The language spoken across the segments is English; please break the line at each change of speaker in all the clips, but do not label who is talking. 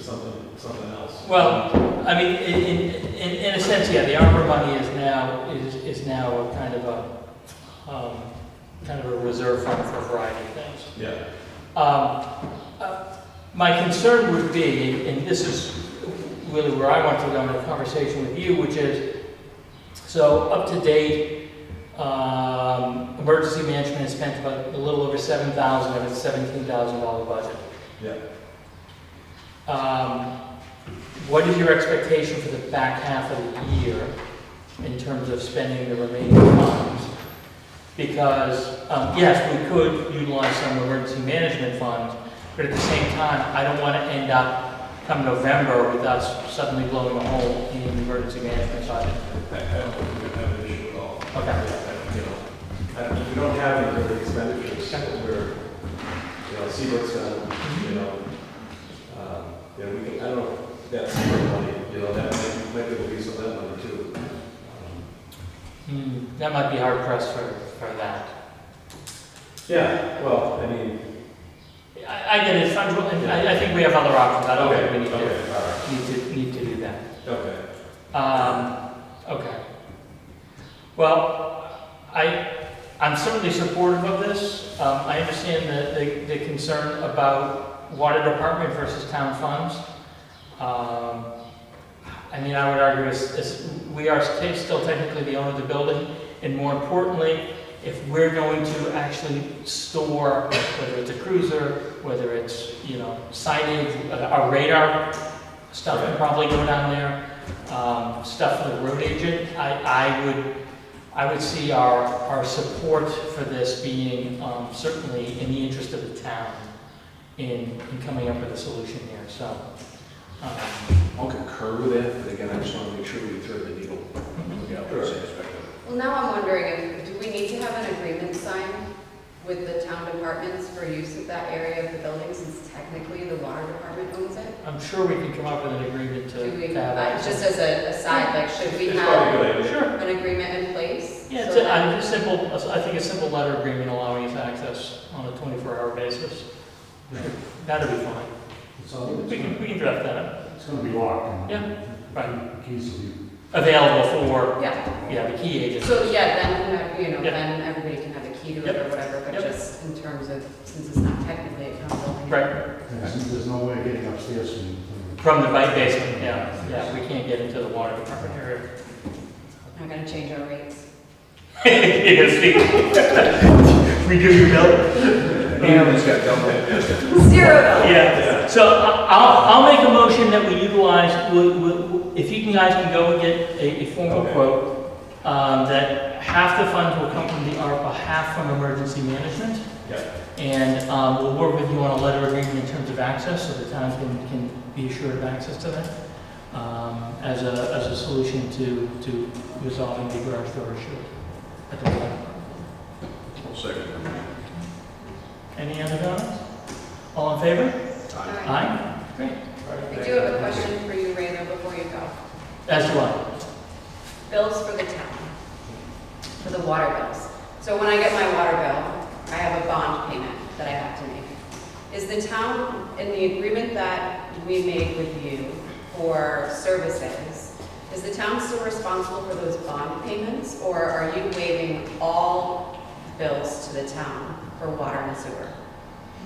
something, something else.
Well, I mean, in, in, in in a sense, yeah, the ARPA money is now, is, is now a kind of a, um, kind of a reserve fund for a variety of things.
Yeah,
Um, uh, My concern would be, and this is really where I want to go in a conversation with you, which is, so up-to-date, um, emergency management has spent about a little over seven thousand of its seventeen thousand dollar budget.
yeah.
Um, What is your expectation for the back half of the year in terms of spending the remaining funds? Because, um, yes, we could utilize some emergency management funds, but at the same time, I don't want to end up come November with us suddenly blowing a hole in the emergency management budget.
I, I don't think we have an issue at all.
Okay.
You know, I- we don't have any really expenditures that we're, you know, Seabrooks, um, you know, um, you know, we can, I don't know, that's Seabrook money, you know, that might, might be able to use some of that money too. Um,
Hmm, That might be hard pressed for, for that.
Yeah, well, I mean,
I, I get it, fungible, and I, I think we have other options, I don't
okay,
think we need to,
okay, all right,
need to, need to do that.
okay.
Um, okay. Well, I, I'm certainly supportive of this. Um, I understand the, the, the concern about water department versus town funds. Um, I mean, I would argue it's, it's, we are sta- still technically the owner of the building, and more importantly, if we're going to actually store, whether it's a cruiser, whether it's, you know, signage, uh, our radar stuff would
Right.
probably go down there, um, stuff for the road agent, I, I would, I would see our, our support for this being, um, certainly in the interest of the town in, in coming up with a solution here, so. um,
I'll concur with that, but again, I just want to make sure we thread the needle. Yeah,
Sure.
Well, now I'm wondering, if do we need to have an agreement signed with the town departments for use of that area of the building since technically the water department owns it?
I'm sure we can come up with an agreement to
Do we,
to have
I-
that.
just as a aside, like, should we
It's
have
probably a good idea.
Sure.
an agreement in place?
Yeah, it's
so
a,
that-
I- a simple, I think a simple letter agreement allowing us access on a twenty-four hour basis. That'll be fine. We can, we can draft that up.
It's gonna be locked. and
Yeah, right.
Keys will be
Available for,
Yeah,
yeah, the key agents.
so yeah, then, you know,
Yeah.
then everybody can have a key to it
Yep.
or whatever, but
Yep.
just in terms of, since it's not technically a town building.
Right,
Yeah, since there's no way of getting upstairs and.
from the bike basement, yeah, yeah, we can't get into the water department area.
Not gonna change our rates.
You're gonna speak. Redo your bill?
Animals got dumped.
Zero dollars.
Yeah, so I- I'll, I'll make a motion that we utilize, we- we- if you can- guys can go and get a, a formal
Okay.
quote, um, that half the funds will come from the ARPA, half from emergency management.
Yeah.
And um, we'll work with you on a letter agreement in terms of access, so the town can, can be assured of access to that um, as a, as a solution to, to resolving the garage door issue. at the moment.
I'll second that.
Any other comments? All in favor?
Aye.
Aye? Great.
All right,
I
thank
do have
you.
a question for you, Ray, though, before you go.
That's the one.
bills for the town, for the water bills. So when I get my water bill, I have a bond payment that I have to make. Is the town, in the agreement that we made with you for services, is the town still responsible for those bond payments? Or are you waiving all bills to the town for water and sewer?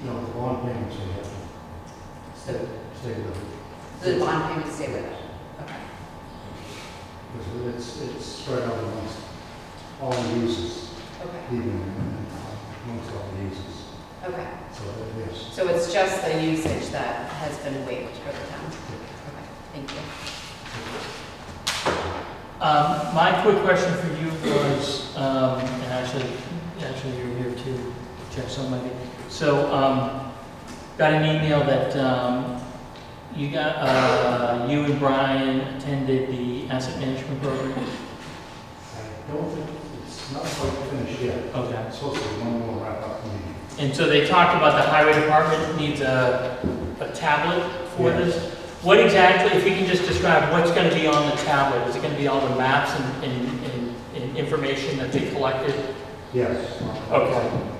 You know, the bond payments we have to
So
stay with.
the bond payments stay with it? Okay.
Because it's, it's spread out amongst all the users,
Okay,
even amongst all the users.
okay.
So, yes.
So it's just the usage that has been waived for the town? Okay, thank you.
Um, My quick question for you was, um, and actually, actually you're here too, Jeff, so maybe. So, um, got an email that um, you got, uh, you and Brian attended the asset management program.
I don't think, it's not quite finished yet.
Okay.
It's supposed to be one more wrap up meeting.
And so they talked about the highway department needs a a tablet for
Yeah.
this. What exactly, if you can just describe what's going to be on the tablet? Is it going to be all the maps and- and and- and information that they collected?
Yes.
Okay.